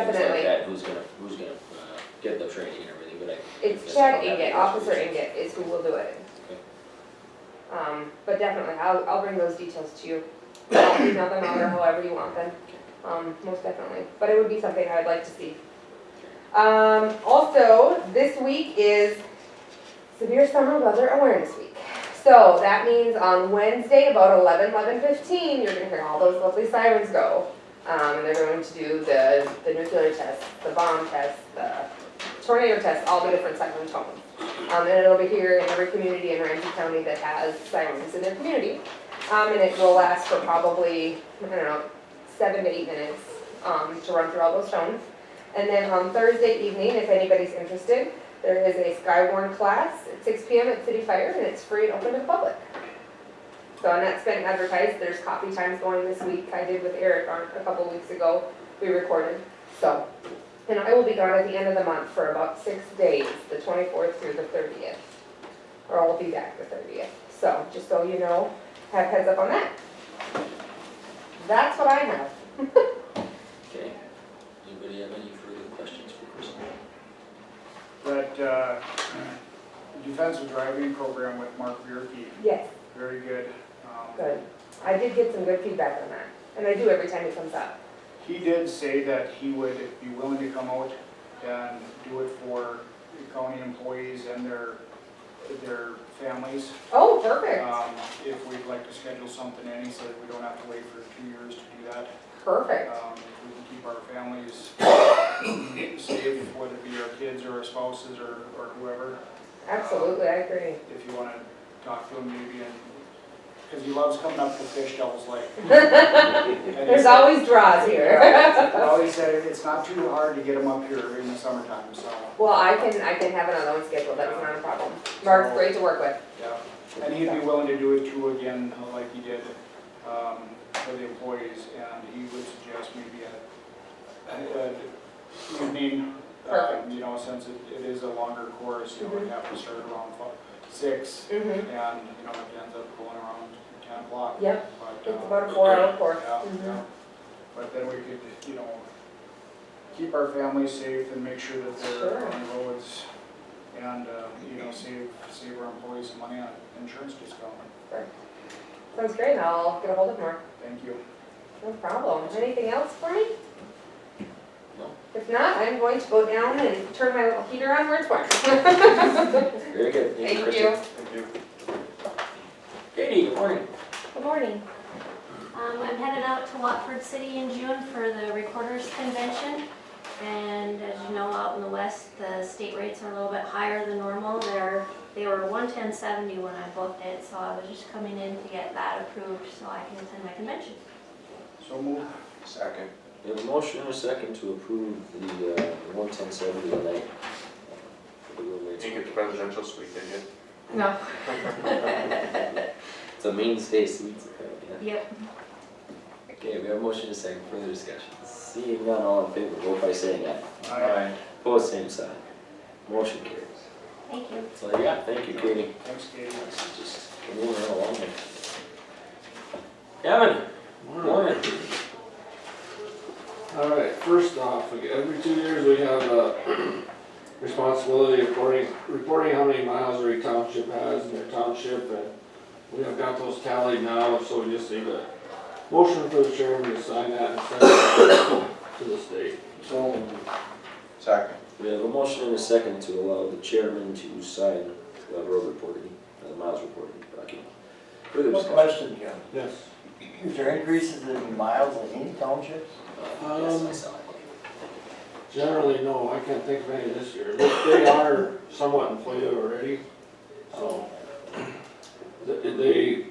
things like Definitely. that, Who's gonna, who's gonna uh, get the training and everything, but I. It's guess I Chad don't have Inget, the Officer resolutions. Inget is who will do it. Um, but definitely, I'll, I'll bring those details to you. I'll Email them out or however you want them, um, most definitely, but it would be something I'd like to see. Um, also, this week is severe summer weather awareness week. So that means on Wednesday, about eleven, eleven fifteen, you're gonna hear all those lovely sirens go. Um, and they're going to do the, the nuclear test, the bomb test, the tornado test, all the different siren tones. Um, and it'll be here in every community in Ramsey County that has sirens in their community. Um, and it will last for probably, I don't know, seven to eight minutes, um, to run through all those tones. And then on Thursday evening, if anybody's interested, there is a Skywarn class at six P M at City Fire and it's free and open to the public. So, and that's been advertised, there's coffee times going this week, I did with Eric on- a couple weeks ago, we recorded, so. And I will be gone at the end of the month for about six days, the twenty-fourth through the thirtieth. Or I'll be back the thirtieth, so, just so you know, have heads up on that. That's what I have. Okay. Anybody have any further questions for Kristen? That uh, defensive driving program with Mark Bierke, Yes, very good. Um, good. I did get some good feedback on that, and I do every time it comes up. He did say that he would be willing to come out and do it for the county employees and their, their families. Oh, perfect, Um, If we'd like to schedule something in, he said we don't have to wait for two years to do that. perfect, Um, If we can keep our families safe, whether it be our kids or our spouses or or whoever. absolutely, I agree. if you wanna talk to him maybe and, cause he loves coming up to Fish Devil's Lake. There's always draws here. Well, he said it's not too hard to get him up here in the summertime, so, Well, I can, I can have another one scheduled, that's not a problem. Mark's great to work with. yeah. And he'd be willing to do it too again, like he did, um, for the employees, and he would suggest maybe a, a evening, um, Perfect. you know, since it, it is a longer course, you know, we have to start around five, six, Mm-hmm. and, you know, it ends up going around ten o'clock. Yep, But, it's uh, about a four-hour course. Yeah, Mhm. yeah, but then we could, you know, keep our families safe and make sure that Sure. they're on the roads and, uh, you know, save, save our employees some money on insurance discount. Sounds great, I'll get a hold of Mark, Thank you. no problem. Anything else for me? No. If not, I'm going to go down and turn my little heater on where it's warm. Very good, thank Thank you, Kristen. you. Thank you. Katie, good morning. Good morning. Um, I'm headed out to Watford City in June for the Recorders Convention. And as you know, out in the west, the state rates are a little bit higher than normal. They're, they were one ten seventy when I booked it, so I was just coming in to get that approved so I can attend my convention. So move. Second. We have a motion and a second to approve the, uh, one ten seventy night. uh, for the room rates. Did you get the presidential suite, did you? No. It's a mainstay suites, apparently, yeah. Yep, Okay, we have a motion and a second, further discussion. Seeing none, all in favor, vote by saying aye. Aye. Opposed, same sign. Motion carries. thank you. That's all I got, thank you, Katie. Thanks, Katie. Just moving right along here. Kevin, morning. All right, first off, we- every two years we have a responsibility reporting, reporting how many miles every township has in their township, and we have got those tallied now, so we just need a motion for the chairman to sign that and send it to the state. So. Second. We have a motion and a second to allow the chairman to sign the road reporting, uh, the miles reporting document. Further One discussion? question, Jim. Yes. Is there increases in miles in any townships? Uh, Yes, I saw it. Generally, no, I can't think of any this year, but they are somewhat inflated already, so. Th- They,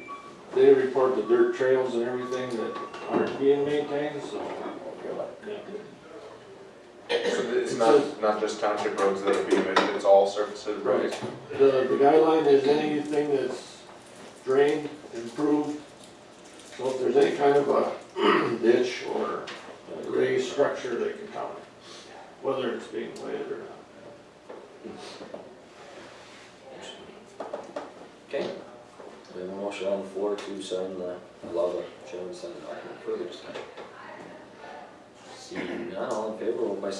they report the dirt trails and everything that aren't being maintained, so. Really? So it's not, not just township roads that are being omitted, it's all surfaces, roads? Right. The, the guideline is anything that's drained, improved. So if there's any kind of a ditch or raised structure, they can count it, whether it's being laid or not. Okay. We have a motion on the floor to sign the, allow the chairman to sign the document. Further discussion? Seeing none, all in favor, vote by saying